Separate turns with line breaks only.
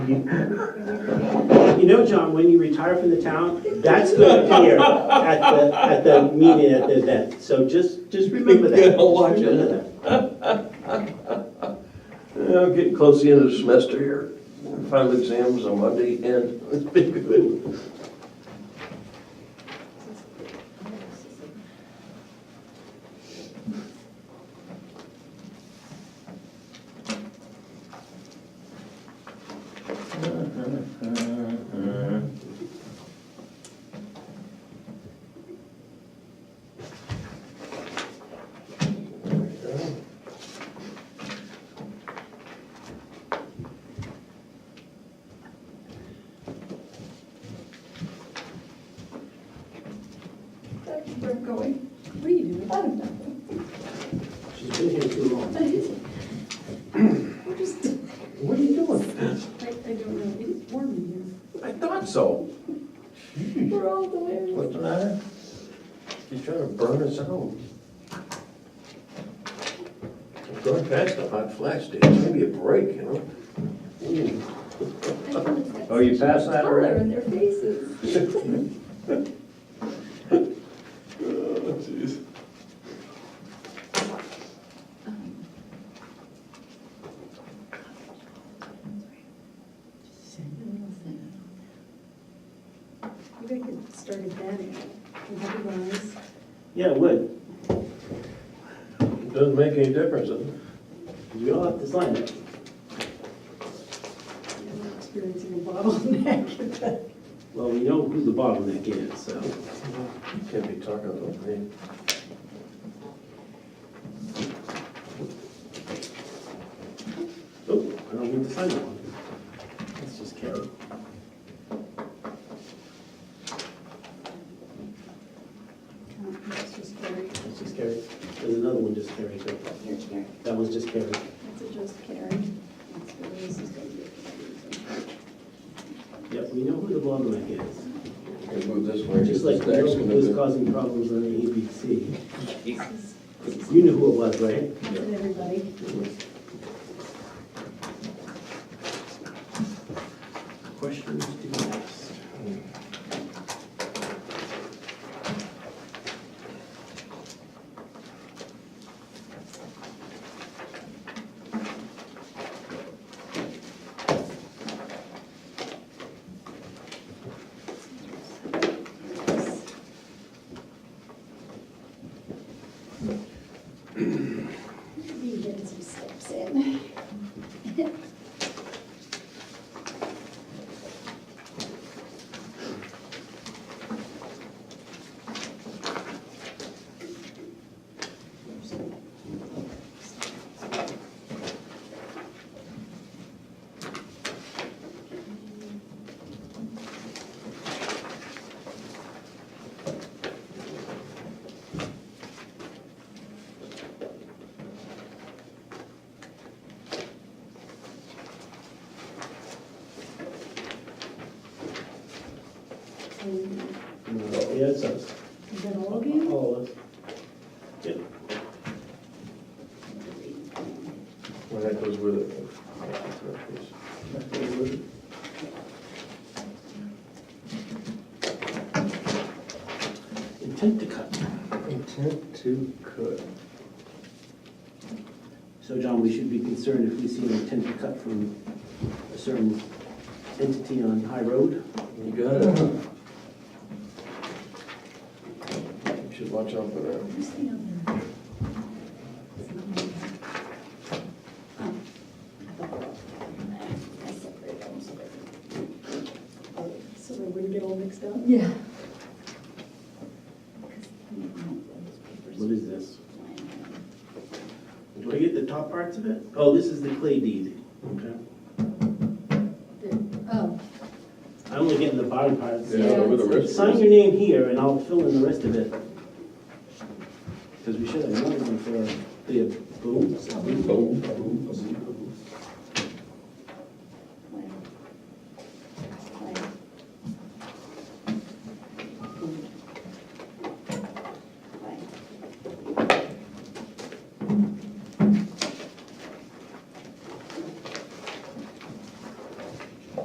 You know, John, when you retire from the town, that's going to appear at the, at the meeting, at the event. So just, just remember that.
Yeah,
Just
watch it.
remember that.
Yeah, I'm getting close to the end of the semester here. Final exams on Monday and it's been good.
Thank you for going. What are you doing? I don't know.
She's been here too long.
What is it? We're just,
What are you doing?
I, I don't know. It is warm in
I thought so.
here. We're all the way.
What's the matter? She's trying to burn us out. We're Going past the hot flash days, maybe a break, you know? Ooh.
Hmm. Oh, you passed that
Color
already?
in their faces.
Oh, jeez.
We gotta get started then. Otherwise,
Yeah, it would.
It Doesn't make any difference, does it?
We all have to sign it.
we're experiencing a bottleneck.
Well, we know who the bottleneck is, so.
Can't be talking about me.
Oh, I don't need to sign that one. That's just carry.
That's just Carrie.
That's just carry. There's another one just carry too.
Here's Carrie.
That one's just carry.
That's a just Carrie. That's where this is gonna be.
Yep, we know who the bottleneck is.
Can move this way.
Just like you know who was causing problems on the ABC.
This is- this is-
You knew who it was, right?
That's it, everybody.
Questions to be asked.
Be getting some steps in. And
Yeah, it's us.
Is that all of you?
All of us. Yep.
Well, that goes with it.
Intent to cut.
Intent to cut.
So John, we should be concerned if we see an intent to cut from a certain entity on High Road.
You got it. You Should watch out for that.
Who's the other? It's not me. Oh, I thought they were all together in there. I separated them so they're- So they wouldn't get all mixed up? Yeah.
What is this? Do I get the top parts of it? Oh, this is the clay deed. Okay.
Oh,
I only get the bottom parts.
Yeah,
with the wrist.
Sign your name here and I'll fill in the rest of it. Because we should have known them for the boom.
Boom, boom, boom.